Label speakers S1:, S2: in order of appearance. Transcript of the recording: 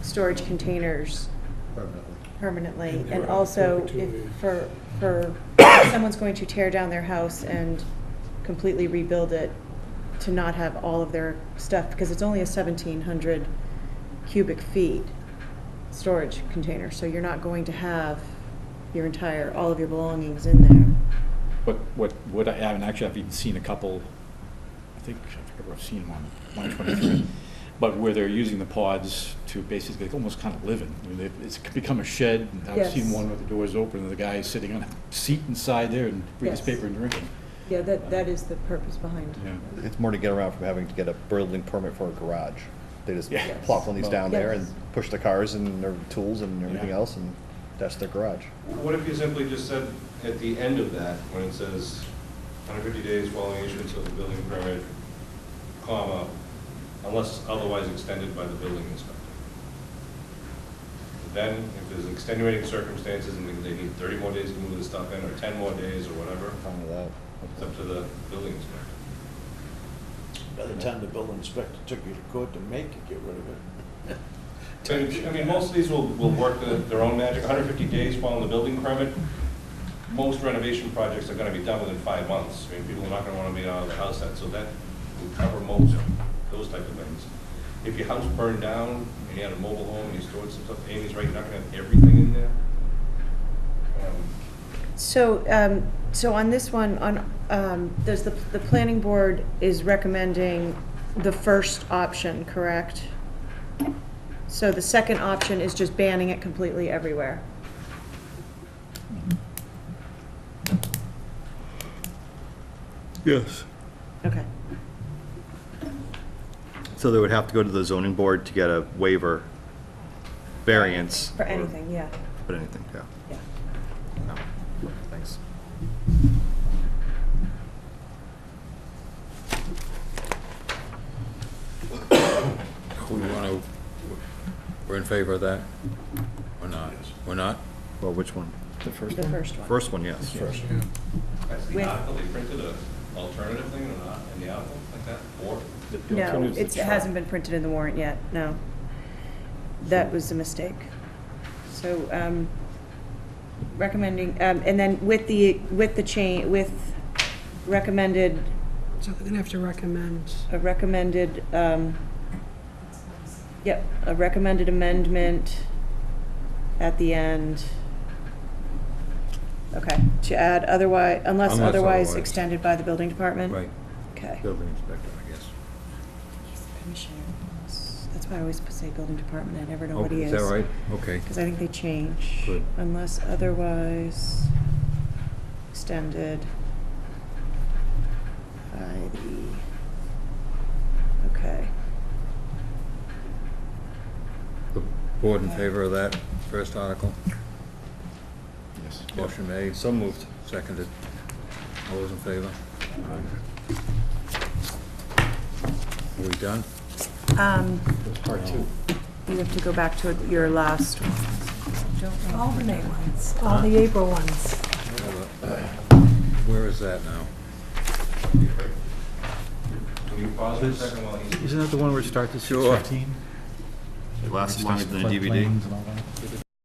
S1: storage containers
S2: permanently.
S1: permanently,
S3: And
S1: and
S3: for
S1: also
S3: perpetuity.
S1: if, for, for, if someone's going to tear down their house and completely rebuild it, to not have all of their stuff, because it's only a seventeen hundred cubic feet storage container, so you're not going to have your entire, all of your belongings in there.
S4: But what, what I haven't, actually, I've even seen a couple, I think, I forget where I've seen one, one twenty-three, but where they're using the pods to basically almost kind of live in. I mean, they've- It's become a shed, and I've seen
S1: Yes.
S4: one with the doors open, and the guy is sitting on a seat inside there and reading his
S1: Yes.
S4: paper and drinking.
S1: Yeah, that, that is the purpose behind.
S4: Yeah.
S2: It's more to get around from having to get a building permit for a garage. They just
S4: Yeah.
S2: plop one of these down there and
S1: Yes.
S2: push the cars and their tools and everything
S4: Yeah.
S2: else, and that's their garage.
S5: What if you simply just said at the end of that, when it says 150 days following issuance of the building permit, comma, unless otherwise extended by the building inspector? Then, if there's extenuating circumstances and they need 30 more days to move the stuff in, or 10 more days, or whatever,
S2: Fine with that.
S5: it's up to the building inspector.
S3: By the time the building inspector took you to court to make you get rid of it.
S5: But, I mean, most of these will, will work their- their own magic, 150 days following the building permit. Most renovation projects are gonna be done within five months. I mean, people are not gonna wanna be out of the house that, so that will cover most, those type of things. If your house burned down and you had a mobile home and you stored some stuff, Amy's right, you're not gonna have everything in there. Um,
S1: So, um, so on this one, on, um, does the, the planning board is recommending the first option, correct? So the second option is just banning it completely everywhere.
S2: Yes.
S1: Okay.
S2: So they would have to go to the zoning board to get a waiver, variance.
S1: For
S2: or-
S1: anything, yeah,
S2: But anything, yeah.
S1: yeah.
S2: No. Thanks.
S6: We want to, we're in favor of that? Or not? We're not?
S2: Well, which one?
S4: The first
S1: The
S4: one?
S1: first one.
S2: First one, yes. First.
S5: That's the
S1: With-
S5: article, they printed an alternative thing or not in the article, like that, or?
S4: The- the
S1: No,
S4: alternative is the
S1: it's- it
S4: truck.
S1: hasn't been printed in the warrant yet, no. That was a mistake. So, um, recommending, um, and then with the, with the change, with recommended,
S7: So they're gonna have to recommend.
S1: a recommended, um, yep, a recommended amendment at the end. Okay, to add otherwise, unless
S6: Unless
S1: otherwise
S6: otherwise.
S1: extended by the building department? Okay.
S6: Building inspector, I guess.
S1: Commissioners. That's why I always say building department, I never know what
S6: Okay,
S1: he
S6: is
S1: is.
S6: that right? Okay.
S1: Because I think they change.
S6: Good.
S1: Unless otherwise extended by the, okay.
S6: The board in favor of that first article?
S4: Yes.
S6: Motion made,
S2: So moved.
S6: seconded. All those in favor? Are we done?
S1: Um,
S4: That's Part two.
S1: you have to go back to your last one.
S7: All the May ones, all the April ones.
S6: Where is that now?
S5: Can you pause for a second while he's?
S8: Isn't that the one where it starts at
S6: Sure.
S8: 6:15?
S2: Last
S8: It
S2: month in the
S8: starts
S2: DVD.
S8: floodplains and all that.